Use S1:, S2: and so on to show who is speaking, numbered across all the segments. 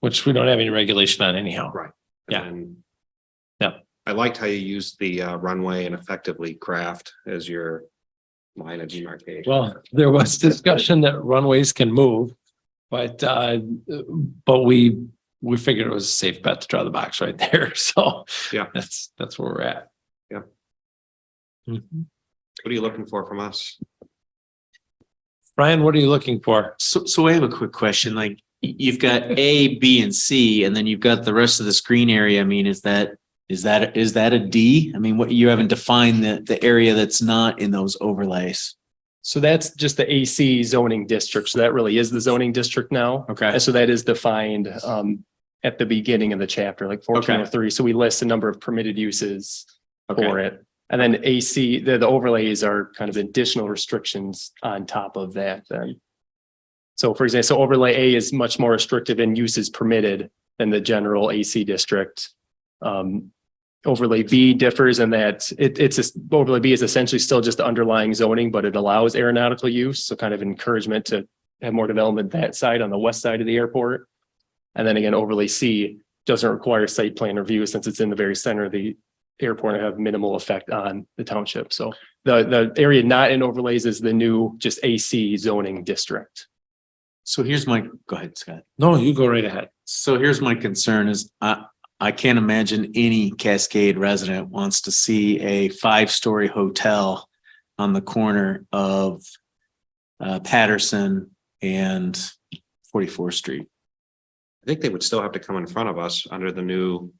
S1: which we don't have any regulation on anyhow.
S2: Right.
S1: Yeah.
S2: And
S1: Yeah.
S2: I liked how you used the uh, runway and effectively craft as your line of demarcation.
S1: Well, there was discussion that runways can move, but, uh, but we, we figured it was a safe bet to draw the box right there. So
S2: Yeah.
S1: that's, that's where we're at.
S2: Yeah.
S1: Mhm.
S2: What are you looking for from us?
S1: Ryan, what are you looking for?
S3: So, so I have a quick question, like, y- you've got A, B, and C, and then you've got the rest of the screen area, I mean, is that, is that, is that a D? I mean, what, you haven't defined the, the area that's not in those overlays.
S4: So that's just the AC zoning district. So that really is the zoning district now.
S3: Okay.
S4: And so that is defined um at the beginning of the chapter, like fourteen oh three. So we list a number of permitted uses for
S3: Okay,
S4: it. And then AC, the the overlays are kind of additional restrictions on top of that then. So for example, so overlay A is much more restrictive in uses permitted than the general AC district. Um, overlay B differs in that it, it's, es- overlay B is essentially still just the underlying zoning, but it allows aeronautical use, so kind of encouragement to have more development that side on the west side of the airport. And then again, overlay C doesn't require site plan review since it's in the very center of the airport and have minimal effect on the township. So the, the area not in overlays is the new just AC zoning district.
S3: so here's my, go ahead, Scott.
S1: No, you go right ahead.
S3: So here's my concern is I, I can't imagine any Cascade resident wants to see a five-story hotel on the corner of uh, Patterson and 44th Street.
S2: I think they would still have to come in front of us under the new,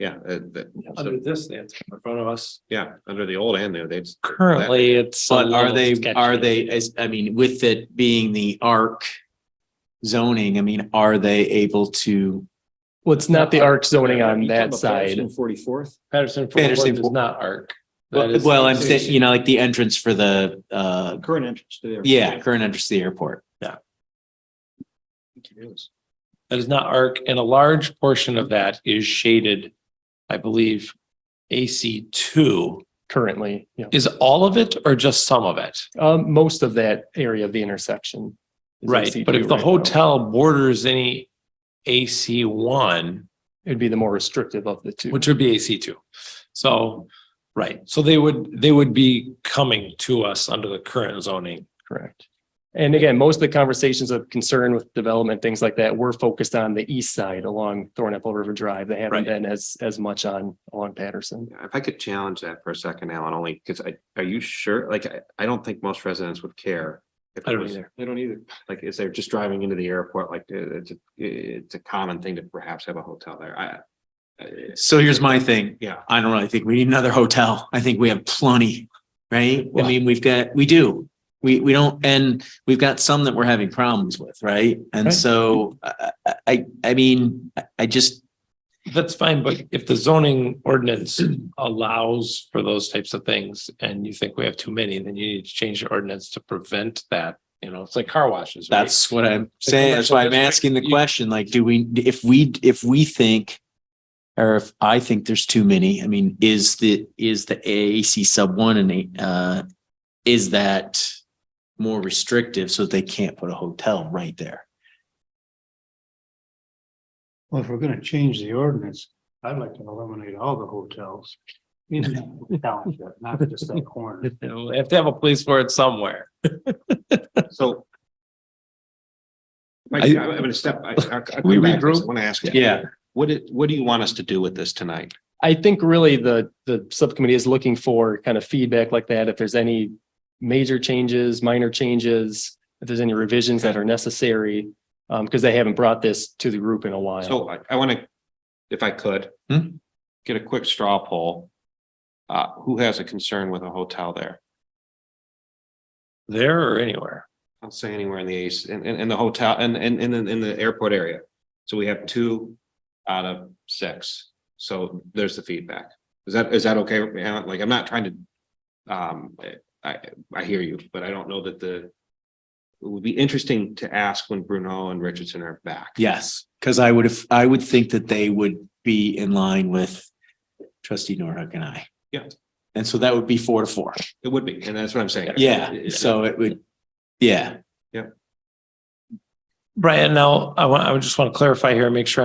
S2: yeah, uh, the-
S1: Under this, that's in front of us.
S2: yeah, under the old and new, they'd,
S1: Currently, it's. a
S3: But are
S1: little
S3: they,
S1: sketchy.
S3: are they, as, I mean, with it being the arc zoning, I mean, are they able to?
S4: Well, it's not the arc zoning on that side.
S2: Forty-fourth?
S1: Patterson
S3: Patterson
S1: Forty-Fourth is
S3: Fo-
S1: not arc. That is-
S3: Well, I'm saying, you know, like the entrance for the, uh,
S2: Current entrance to the.
S3: yeah, current entrance to the airport.
S1: That is not arc and a large portion of that is shaded, I believe, AC two.
S4: currently, yeah.
S1: Is all of it or just some of it?
S4: Um, most of that area of the intersection. is
S1: Right,
S4: AC2
S1: but if the
S4: right now.
S1: hotel borders any AC one,
S4: It'd be the more restrictive of the two.
S1: which would be AC two. So, right, so they would, they would be coming to us under the current zoning.
S4: Correct. And again, most of the conversations of concern with development, things like that, were focused on the east side along Thornapple River Drive. They haven't
S1: Right.
S4: been as, as much on, along Patterson.
S2: If I could challenge that for a second, Alan, only because I, are you sure? Like, I, I don't think most residents would care. if
S1: I
S2: it
S1: don't
S2: was-
S1: either.
S2: They don't either. Like, is they're just driving into the airport, like, uh, it's, a it's a common thing to perhaps have a hotel there. I. I-
S3: So here's my thing.
S2: Yeah.
S3: I don't really think we need another hotel. I think we have plenty, right? I
S1: Well-
S3: mean, we've got, we do. We, we don't, and we've got some that we're having problems with, right? And
S4: Right.
S3: so I, I- I, I mean, I- I just,
S1: That's fine, but if the zoning ordinance allows for those types of things and you think we have too many, then you need to change the ordinance to prevent that. You know, it's like car washes. right?
S3: That's what I'm saying. That's why I'm
S1: commercial
S3: asking the
S1: district, you-
S3: question, like, do we, if we, if we think. Or if I think there's too many, I mean, is the, is the AAC sub one and, uh, is that? More restrictive so that they can't put a hotel right there?
S5: Well, if we're gonna change the ordinance, I'd like to eliminate all the hotels. in the township, Not just that corner.
S1: You know, They have to have a place for it somewhere.
S2: So. Mike,
S1: I-
S2: I'm I'm gonna step. I
S1: We regroup?
S2: Want to ask. you.
S3: Yeah.
S2: What, it- what do you want us to do with this tonight?
S4: I think really the, the subcommittee is looking for kind of feedback like that. If there's any major changes, minor changes, if there's any revisions that are necessary, um, because they haven't brought this to the group in a
S1: Oh,
S4: while.
S2: So I, I want to, if I could.
S3: Hmm.
S2: Get a quick straw poll. Uh, who has a concern with a hotel there?
S1: There or anywhere.
S2: I'll say anywhere in the ace, in, in, in the hotel, and, and, and in the airport area. So we have two out of six. So there's the feedback. Is that, is that okay? Alan? Like, I'm not trying to. Um, I, I hear you, but I don't know that the. It would be interesting to ask when Bruno and Richardson are back.
S3: Yes, because I would have, I would think that they would be in line with trustee Norhuck and I.
S2: Yeah.
S3: And so that would be four to four.
S2: It would be, and that's what I'm saying.
S3: Yeah, so it would, yeah.
S2: Yeah.
S1: Brian, now I want, I would just want to clarify here, and make sure I'm